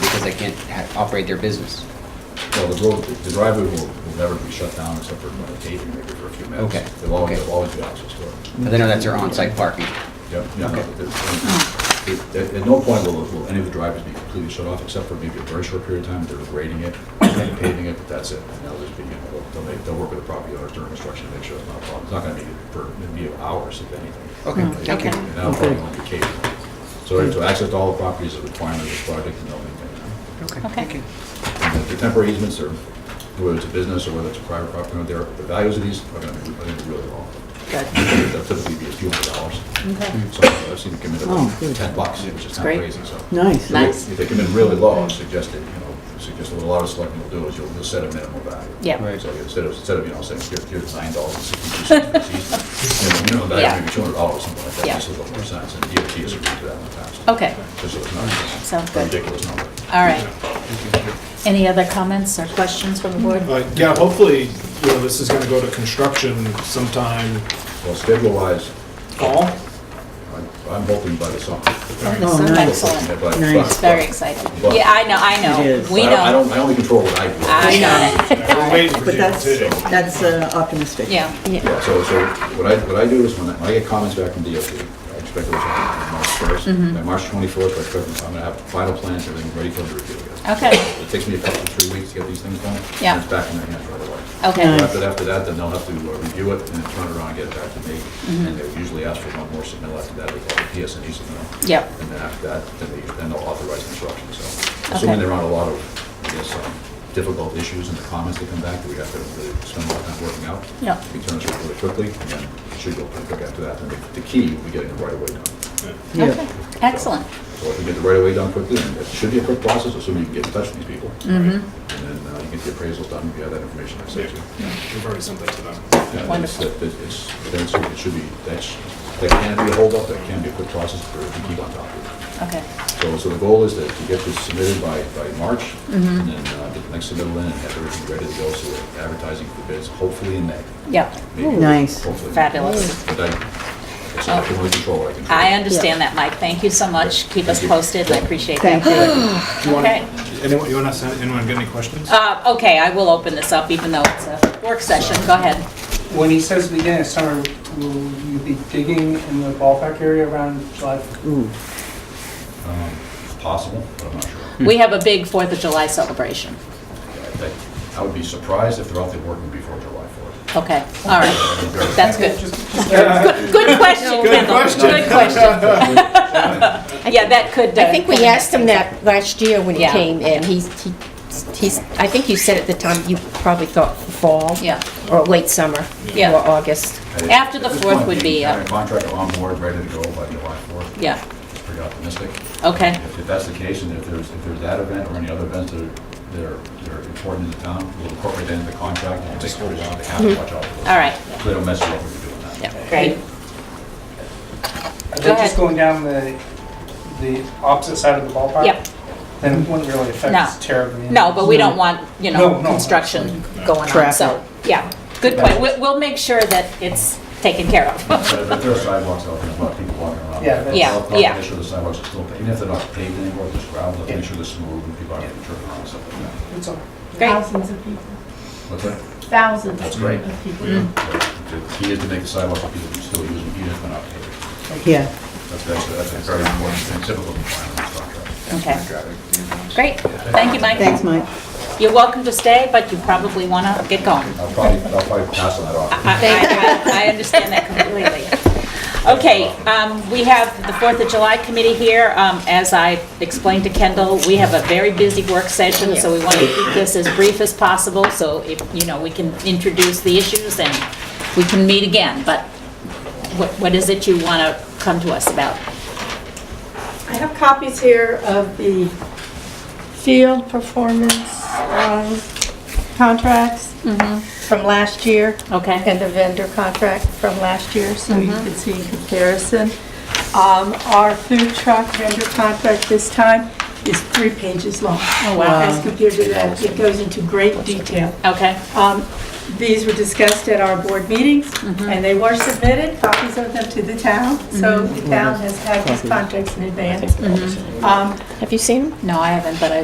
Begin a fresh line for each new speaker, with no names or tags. because they can't ha- operate their business.
Well, the road, the driveway will, will never be shut down except for when they pave it maybe for a few minutes.
Okay,
They'll always,
okay.
they'll always be access to it.
But they know that's their on-site parking.
Yep, yeah, no,
Okay.
there's- it- At at no point will, will any of the driveways be completely shut off, except for maybe a very short period of time, they're grading it, paving it, but that's it. And they'll just be, they'll- they'll make, they'll work with the property owners during construction to make sure it's not a problem. It's not gonna be for, it'll be hours if anything.
Okay, thank you.
And that'll probably only be occasional. So to access to all the properties is a requirement of this project and they'll maintain that.
Okay,
Okay.
thank you.
And The temporary easements are, whether it's a business or whether it's a private property, owner, they're- the values of these are gonna be, are gonna be really low. They'll typically be a few hundred dollars.
Okay.
So I've seen them come in at
Oh,
like
good.
ten bucks, which is not
great.
crazy, so.
Nice.
So they-
Nice.
If they come in really low, I suggest that, you know, suggest what a lot of selectmen will do is you'll, you'll set a minimum value.
Yeah.
Right.
So instead of, instead of, you know, saying, here, here's nine dollars and sixty-two cents for this easement, you know, minimum
Yeah.
value maybe two hundred dollars, something like
Yeah.
that, just a little more sense, and DOT has agreed to that in the past.
Okay.
Just so it's not a
Sounds good.
Ridiculous number.
All right. Any other comments or questions from the board?
But yeah, hopefully, you know, this is gonna go to construction sometime
Well, schedule-wise,
fall.
I'm, I'm hoping by the summer.
Oh,
So
nice.
Excellent.
But-
Nice.
It's very exciting.
Well-
Yeah, I know, I
It
know.
is.
We
I don't- I
know.
don't, I only control what I do.
I know.
We're waiting for
But
people
that's,
too.
that's uh, optimistic.
Yeah.
Yeah, so, so what I, what I do is when I, when I get comments back from DOT, I expect those on March first.
Mm-hmm.
By March twenty-fourth, I expect, them- I'm gonna have final plans, everything ready for them to review. again.
Okay,
It takes me a couple, three weeks to get these things done. and
Yeah.
It's back in their hands right away.
okay.
After, after that, then they'll have to uh, review it and then turn it around and get it back to me.
Mm-hmm.
And they usually ask for one more submittal after that, they call it PSNE submittal.
Yep.
And then after that, then they, then they'll authorize construction, so.
Okay.
Assuming there aren't a lot of, I guess, um, difficult issues in the comments that come back, that we have to really spend a lot of time working out.
Yep.
We turn it really quickly, and then it should go pretty quick after that. And the- the key will be getting the right of way done.
Okay, excellent.
So if you get the right of way done quickly, then it should be a quick process, assuming you can get in touch with these people.
Mm-hmm.
And then uh, you get the appraisals done, if you have that information, I sent you.
We've already sent that to them.
Yeah, it's-
Wonderful.
it- It's, it's, it should be, that's, that can be a holdup, that can be a quick process for, if you keep on top of
Okay,
it. So, so the goal is that to get this submitted by, by March, and
Mm-hmm.
then, uh, get the next submittal in, and have everything ready to go, so we're advertising for bids, hopefully in May.
yeah,
Maybe,
Nice.
hopefully.
fabulous.
But I, it's not only control what I can.
I understand that, Mike. Thank you so much. Keep us posted. I appreciate
Thank
that.
you.
Do you want,
Okay.
anyone, you want us, anyone got any questions?
Uh, okay, I will open this up even though it's a work session. Go ahead.
When he says begin of summer, will you be digging in the ballpark area around July?
Ooh,
Um, It's possible, but I'm not sure.
We have a big Fourth of July celebration.
Yeah, I think- I would be surprised if they're out there working before July fourth.
Okay, all right. That's good.
good.
Good question, Kendall. Good question. Yeah, that could. uh,
I think we asked him that last year when he
Yeah.
came in. He's, he- he's, I think you said at the time you probably thought fall.
Yeah.
Or late summer.
Yeah.
Or August.
After the fourth would be, uh,
Having a contractor on board, ready to go by July fourth.
Yeah,
It's pretty optimistic.
okay,
If if that's the case, and if there's, if there's that event or any other events that are, that are, that are important in the town, we'll incorporate that into the contract, and make sure they have to watch out for those.
all right.
So they don't mess you up when you're doing that.
Yeah, great.
Are they
Go ahead.
just going down the, the opposite side of the ballpark?
Yep.
Then it wouldn't really
No.
affect terribly.
No, but we don't want, you
No,
know,
no,
construction going on,
Traffic.
so, yeah, good point. We'll, we'll make sure that it's taken care of.
But if there are sidewalks out there, there's a lot of people walking around.
Yeah, that's-
Yeah,
They'll- they'll
yeah.
Make sure the sidewalks are still, even if they're not paved anymore, just gravel, they'll
Yeah.
make sure they're smooth, and people aren't getting tripped around and stuff like that.
It's all right.
Great,
Thousands of people,
What's that?
thousands
That's great.
of people.
The key is to make the sidewalks, that people can still use them, even if they're not paved.
yeah.
That's, that's, that's a very important thing, typical requirement of contract.
okay, great. Thank you, Mike.
Thanks, Mike.
You're welcome to stay, but you probably want to get going.
I'll probably, I'll probably pass on that off.
I- I I- I understand that completely. Okay, um, we have the Fourth of July committee here. Um, As I explained to Kendall, we have a very busy work session, so we want to keep this as brief as possible, so if, you know, we can introduce the issues and we can meet again, but what what is it you want to come to us about?
I have copies here of the field performance um, contracts from last year.
Okay.
And the vendor contract from last year, so you can see in comparison. Um, Our food truck vendor contract this time is three pages long. Oh,
wow.
Um,
As compared to that, it goes into great detail.
Okay,
Um, These were discussed at our board meetings, and they were submitted, copies of them to the town, so the town has had these contracts in advance. Um,
Have you seen him?
Mm-hmm. no, I haven't, but I